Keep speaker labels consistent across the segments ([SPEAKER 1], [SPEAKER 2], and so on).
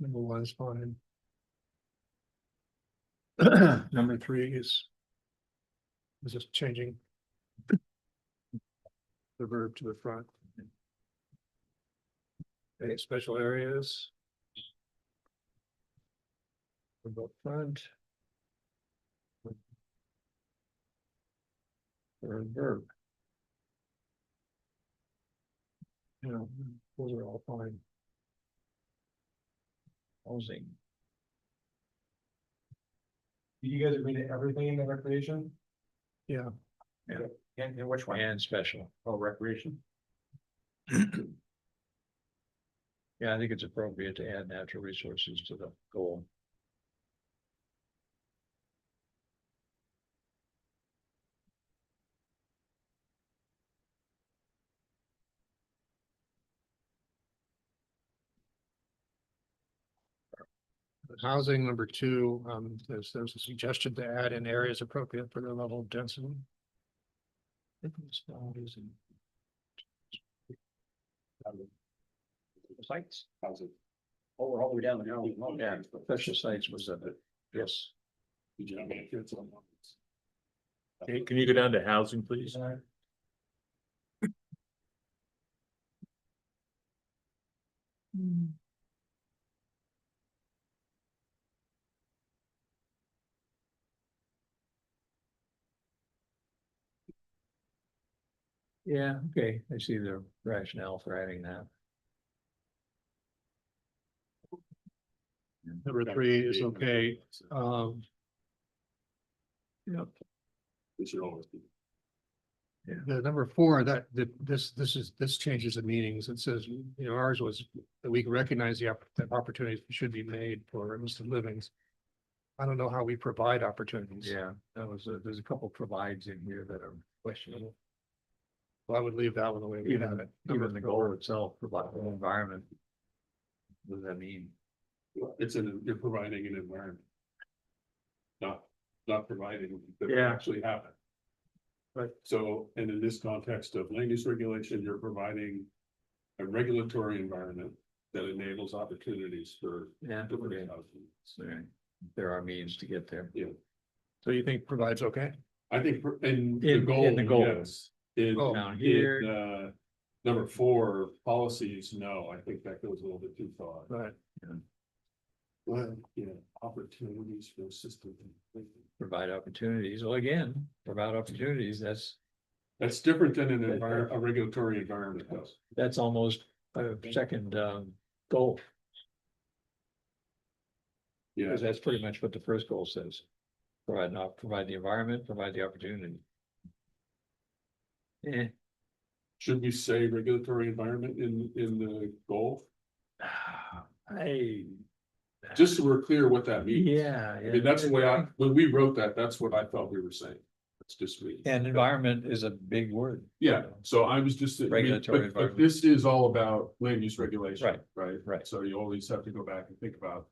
[SPEAKER 1] Number one is fine. Number three is. Is just changing. The verb to the front. Any special areas? About front. Or verb. You know, those are all fine. Housing.
[SPEAKER 2] You guys agree to everything in the recreation?
[SPEAKER 1] Yeah.
[SPEAKER 2] And, and which one?
[SPEAKER 3] And special.
[SPEAKER 2] Oh, recreation.
[SPEAKER 3] Yeah, I think it's appropriate to add natural resources to the goal.
[SPEAKER 1] Housing number two, um, there's, there's a suggestion to add in areas appropriate for the level of density. I think it's not easy.
[SPEAKER 2] Sites, houses. Oh, we're all the way down there.
[SPEAKER 3] Yeah, special sites was a bit, yes.
[SPEAKER 4] Hey, can you go down to housing, please?
[SPEAKER 3] Hmm. Yeah, okay, I see the rationale for adding that.
[SPEAKER 1] Number three is okay, um. Yep.
[SPEAKER 2] It should always be.
[SPEAKER 1] The number four, that, that, this, this is, this changes the meanings. It says, you know, ours was that we recognize the opp- that opportunities should be made for Evanston livings. I don't know how we provide opportunities.
[SPEAKER 3] Yeah, that was, a- there's a couple provides in here that are questionable,
[SPEAKER 1] Well, I would leave that one the way we have
[SPEAKER 3] even,
[SPEAKER 1] it. Number
[SPEAKER 3] even the
[SPEAKER 1] four.
[SPEAKER 3] goal itself, provide an environment. What does that mean?
[SPEAKER 2] It's in, you're providing an environment. Not, not providing. that
[SPEAKER 3] Yeah.
[SPEAKER 2] Actually happen.
[SPEAKER 3] Right.
[SPEAKER 2] So, and in this context of land use regulation, you're providing. A regulatory environment that enables opportunities for.
[SPEAKER 3] Yeah.
[SPEAKER 2] diverse
[SPEAKER 3] okay,
[SPEAKER 2] housing.
[SPEAKER 3] so There are means to get there.
[SPEAKER 1] So you think provides okay?
[SPEAKER 2] I think for- in the
[SPEAKER 3] In-
[SPEAKER 2] goal.
[SPEAKER 3] in the goal.
[SPEAKER 2] yes. In,
[SPEAKER 1] Oh.
[SPEAKER 3] Down
[SPEAKER 2] in,
[SPEAKER 3] here,
[SPEAKER 2] uh, number four, policies, no, I think that goes a little bit too far.
[SPEAKER 1] Right.
[SPEAKER 2] Well, yeah, opportunities for system.
[SPEAKER 3] provide opportunities, well, again, provide opportunities, that's,
[SPEAKER 2] That's different than an envir- a regulatory environment though.
[SPEAKER 3] that's almost a second, um, goal.
[SPEAKER 2] Yeah,
[SPEAKER 3] Because that's pretty much what the first goal says. Provide not, provide the environment, provide the opportunity. Eh,
[SPEAKER 2] should we say regulatory environment in, in the goal?
[SPEAKER 3] I.
[SPEAKER 2] Just so we're clear what that means.
[SPEAKER 3] Yeah.
[SPEAKER 2] I mean, that's the way I, when we wrote that, that's what I felt we were saying. That's just me.
[SPEAKER 3] And environment is a big word.
[SPEAKER 2] Yeah, so I was just, I mean,
[SPEAKER 3] Regulatory
[SPEAKER 2] but, but
[SPEAKER 3] environment.
[SPEAKER 2] this is all about land use regulation.
[SPEAKER 3] Right,
[SPEAKER 2] Right?
[SPEAKER 3] right.
[SPEAKER 2] So you always have to go back and think about.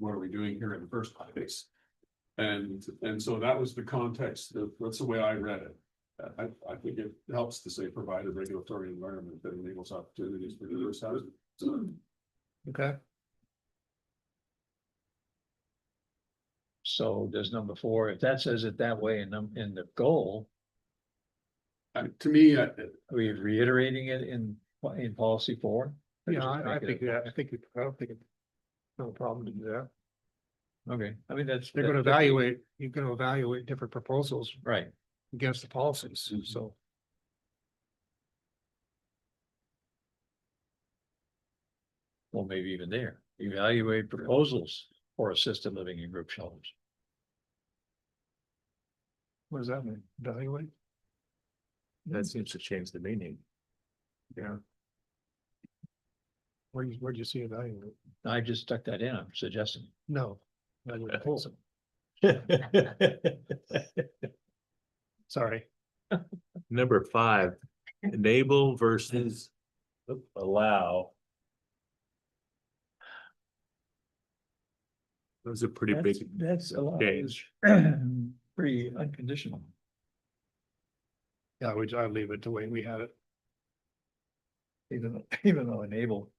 [SPEAKER 2] What are we doing here in the first place? And, and so that was the context, that- that's the way I read it. I, I think it helps to say provide a regulatory environment that enables opportunities for diverse housing. So,
[SPEAKER 1] Okay,
[SPEAKER 3] So does number four, if that says it that way in num- in the goal,
[SPEAKER 2] I- to me, I,
[SPEAKER 3] are we reiterating it in in policy four? Or
[SPEAKER 1] yeah,
[SPEAKER 3] just
[SPEAKER 1] I, I
[SPEAKER 3] make it-
[SPEAKER 1] think, yeah, I think, it- I don't think it's no problem to do that.
[SPEAKER 3] Okay, I mean, that's.
[SPEAKER 1] They're gonna
[SPEAKER 3] that- that-
[SPEAKER 1] evaluate, you're gonna evaluate different proposals
[SPEAKER 3] Right,
[SPEAKER 1] against the policies,
[SPEAKER 2] Mhm.
[SPEAKER 3] Mm-hmm.
[SPEAKER 1] so.
[SPEAKER 3] well, maybe even there, evaluate proposals for assisted living in group shelters.
[SPEAKER 1] What does that mean? Evaluate?
[SPEAKER 4] That seems to change the meaning.
[SPEAKER 1] Where do you, where do you see evaluate?
[SPEAKER 3] I just stuck that in, I'm suggesting.
[SPEAKER 1] No. evaluate proposal. Sorry,
[SPEAKER 4] Number five, enable versus allow. Those are pretty
[SPEAKER 3] That's,
[SPEAKER 4] big.
[SPEAKER 3] that's a lot,
[SPEAKER 4] change.
[SPEAKER 3] it's pretty unconditional.
[SPEAKER 1] yeah, we, I leave it the way we had it.
[SPEAKER 3] Even, though- even though enable